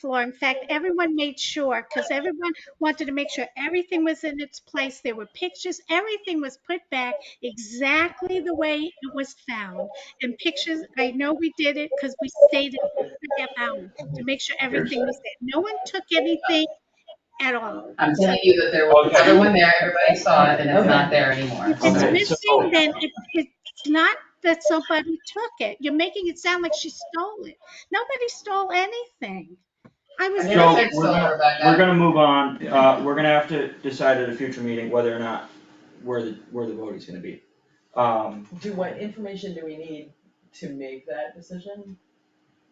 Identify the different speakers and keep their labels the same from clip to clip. Speaker 1: floor. In fact, everyone made sure, because everyone wanted to make sure everything was in its place. There were pictures, everything was put back exactly the way it was found. And pictures, I know we did it because we stayed in for a half hour to make sure everything was there. No one took anything at all.
Speaker 2: I'm telling you that there was
Speaker 3: Okay.
Speaker 2: another one there, everybody saw it, and it's not there anymore.
Speaker 1: If it's
Speaker 3: Okay, so-
Speaker 1: missing, then it, it's not that somebody took it. You're making it sound like she stole it. Nobody stole anything. I was
Speaker 2: I
Speaker 3: So,
Speaker 2: never
Speaker 1: there.
Speaker 2: said
Speaker 3: we're
Speaker 2: so,
Speaker 3: gonna-
Speaker 2: Rebecca.
Speaker 3: We're gonna move on, uh, we're gonna have to decide at a future meeting whether or not, where the, where the vote is gonna be. Um,
Speaker 4: Do what information do we need to make that decision?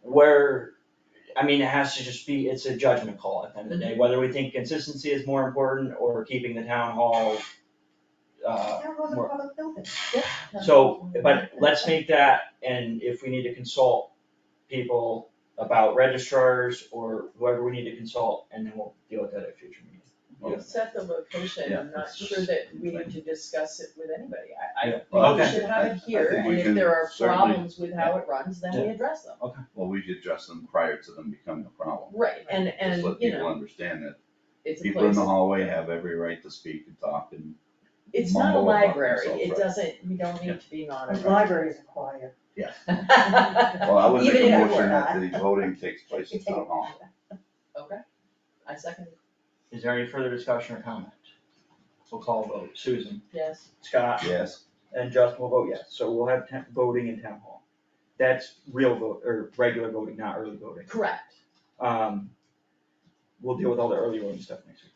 Speaker 3: where, I mean, it has to just be, it's a judgment call at the end of the day, whether we think consistency is more important or keeping the town hall. Uh,
Speaker 5: That was a
Speaker 3: more-
Speaker 5: public building.
Speaker 3: so, but let's make that, and if we need to consult people about registrars or whoever we need to consult, and then we'll deal with that at a future meeting.
Speaker 4: We'll set the location, I'm
Speaker 6: Yeah,
Speaker 4: not
Speaker 6: it's
Speaker 4: sure that we need to discuss it with anybody, I, I
Speaker 3: Yeah,
Speaker 4: think we
Speaker 3: okay.
Speaker 4: should have it here,
Speaker 6: I think we
Speaker 4: and if
Speaker 6: can
Speaker 4: there are
Speaker 6: certainly-
Speaker 4: problems with how it runs, then we address them.
Speaker 6: Well, we should address them prior to them becoming a problem.
Speaker 4: Right, and,
Speaker 6: Just
Speaker 4: and,
Speaker 6: let
Speaker 4: you
Speaker 6: people
Speaker 4: know,
Speaker 6: understand that
Speaker 4: it's a
Speaker 6: people in
Speaker 4: place,
Speaker 6: the hallway have every right to speak and talk and,
Speaker 4: it's not a
Speaker 6: mumble about
Speaker 4: library,
Speaker 6: themselves,
Speaker 4: it
Speaker 6: right.
Speaker 4: doesn't, we don't
Speaker 6: Yeah.
Speaker 4: need to be monitored.
Speaker 5: The libraries are quiet.
Speaker 6: yeah.
Speaker 4: I
Speaker 6: Well, I would make
Speaker 4: Even
Speaker 6: a
Speaker 4: if it
Speaker 6: motion
Speaker 4: were
Speaker 6: that
Speaker 5: not.
Speaker 6: the voting takes place in town hall.
Speaker 4: second,
Speaker 3: Is there any further discussion or comment? We'll call a vote, Susan,
Speaker 4: yes,
Speaker 3: Scott,
Speaker 6: Yes,
Speaker 3: and Justin will vote yes, so we'll have town- voting in town hall. That's real vote, or regular voting, not early voting.
Speaker 4: correct,
Speaker 3: Um, we'll deal with all the early voting stuff next week.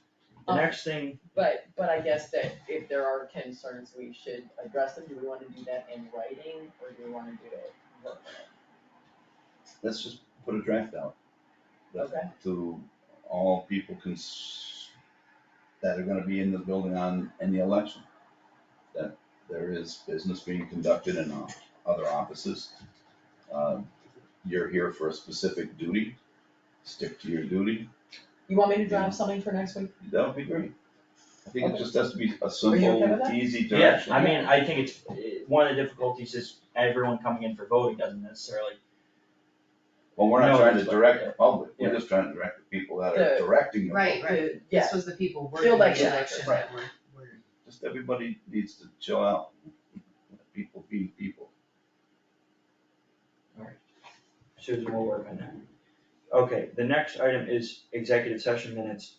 Speaker 3: The
Speaker 4: Um,
Speaker 3: next thing,
Speaker 4: but, but I guess that if there are concerns, we should address them, do we wanna do that in writing, or do we wanna do it? verbally?
Speaker 6: let's just put a draft out. that-
Speaker 4: Okay.
Speaker 6: To all people cons, that are gonna be in the building on, in the election. That there is business being conducted in uh, other offices. Uh, You're here for a specific duty, stick to your duty,
Speaker 4: You want me to draft something for next week?
Speaker 6: That would be great. I think it
Speaker 4: Okay.
Speaker 6: just has to be a
Speaker 4: okay with
Speaker 6: simple,
Speaker 4: that?
Speaker 6: easy
Speaker 3: yeah,
Speaker 6: direction.
Speaker 3: I mean, I think it's, eh, one of the difficulties is everyone coming in for voting doesn't necessarily,
Speaker 6: Well, we're not
Speaker 3: No,
Speaker 6: trying to
Speaker 3: that's fine,
Speaker 6: direct
Speaker 3: yeah.
Speaker 6: the public, we're
Speaker 3: Yeah.
Speaker 6: just trying to direct the people that
Speaker 4: The-
Speaker 6: are directing the
Speaker 2: Right,
Speaker 6: public.
Speaker 2: right,
Speaker 4: The- yeah.
Speaker 2: this was the people working
Speaker 4: Field
Speaker 2: the
Speaker 4: action.
Speaker 2: election that were, were.
Speaker 6: Just everybody needs to chill out. Let People being people.
Speaker 3: Susan will work on that. Okay, the next item is executive session minutes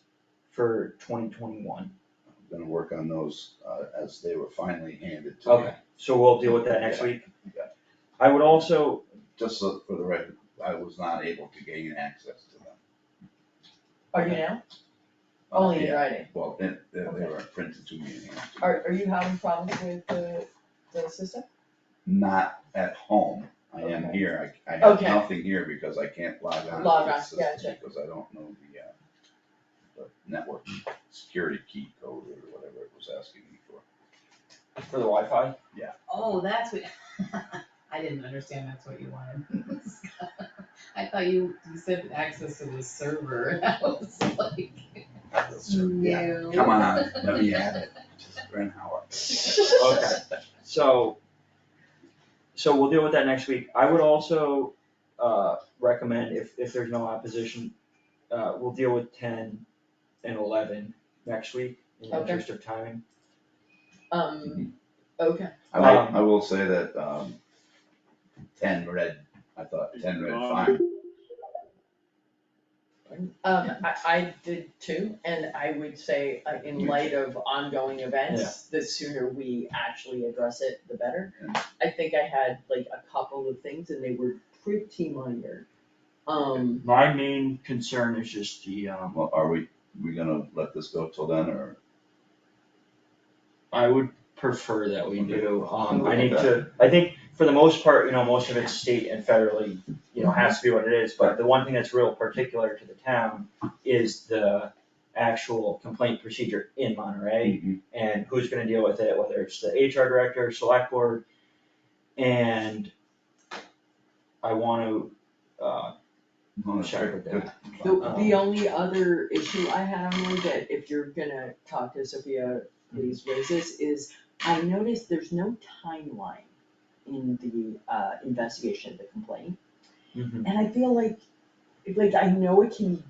Speaker 3: for twenty twenty-one.
Speaker 6: I'm gonna work on those uh, as they were finally handed to me.
Speaker 3: Okay, so we'll deal with that next
Speaker 6: Yeah.
Speaker 3: week.
Speaker 6: Yeah.
Speaker 3: I would also,
Speaker 6: Just so for the record, I was not able to gain access to them.
Speaker 4: Are you now?
Speaker 6: Uh,
Speaker 4: Only in
Speaker 6: yeah.
Speaker 4: writing.
Speaker 6: Well, they, they they were printed to me. in hand.
Speaker 4: Are, are you having problems with the, the system?
Speaker 6: Not at home. I am
Speaker 4: Okay.
Speaker 6: here. I, I have
Speaker 4: Okay.
Speaker 6: nothing here because I can't log on to
Speaker 4: Log
Speaker 6: the
Speaker 4: on,
Speaker 6: system
Speaker 4: gotcha.
Speaker 6: because I don't know the, uh, the network security key code or whatever it was asking me for.
Speaker 3: For the Wi-Fi?
Speaker 2: Oh, that's what, I didn't understand that's what you wanted. I thought you, you said access to the server, and I was like,
Speaker 6: Yeah,
Speaker 2: no.
Speaker 6: Come on, let me have it. Just Brent Howard.
Speaker 3: Okay, so, so we'll deal with that next week. I would also, uh, recommend if, if there's no opposition, uh, we'll deal with ten and eleven next week in the
Speaker 4: Okay.
Speaker 3: interest of timing.
Speaker 4: Um, okay,
Speaker 6: I will, I will say that, um, ten red, I thought ten red fine.
Speaker 4: um, I, I did too, and I would say, uh, in light of ongoing events, the sooner we actually address it, the better.
Speaker 6: Yeah.
Speaker 4: I think I had like a couple of things and they were pretty minor. Um,
Speaker 3: My main concern is just the, um,
Speaker 6: Well, are we, we gonna let this go till then or?
Speaker 3: I would prefer that we do, um, I
Speaker 6: Okay.
Speaker 3: need to, I think for the most part, you know, most of it's state and federally, you know, has to be what it is, but the one thing that's real particular to the town is the actual complaint procedure in Monterey. and who's gonna deal with it, whether it's the HR director, select board. And I wanna, uh,
Speaker 6: Well, that's
Speaker 3: Sure.
Speaker 6: good, good.
Speaker 4: the, the only other issue I had on there that if you're gonna talk to Sophia, please raise this, is I noticed there's no timeline
Speaker 3: Mm-hmm.
Speaker 4: in the, uh, investigation of the complaint. And I feel like
Speaker 5: like, I know it can be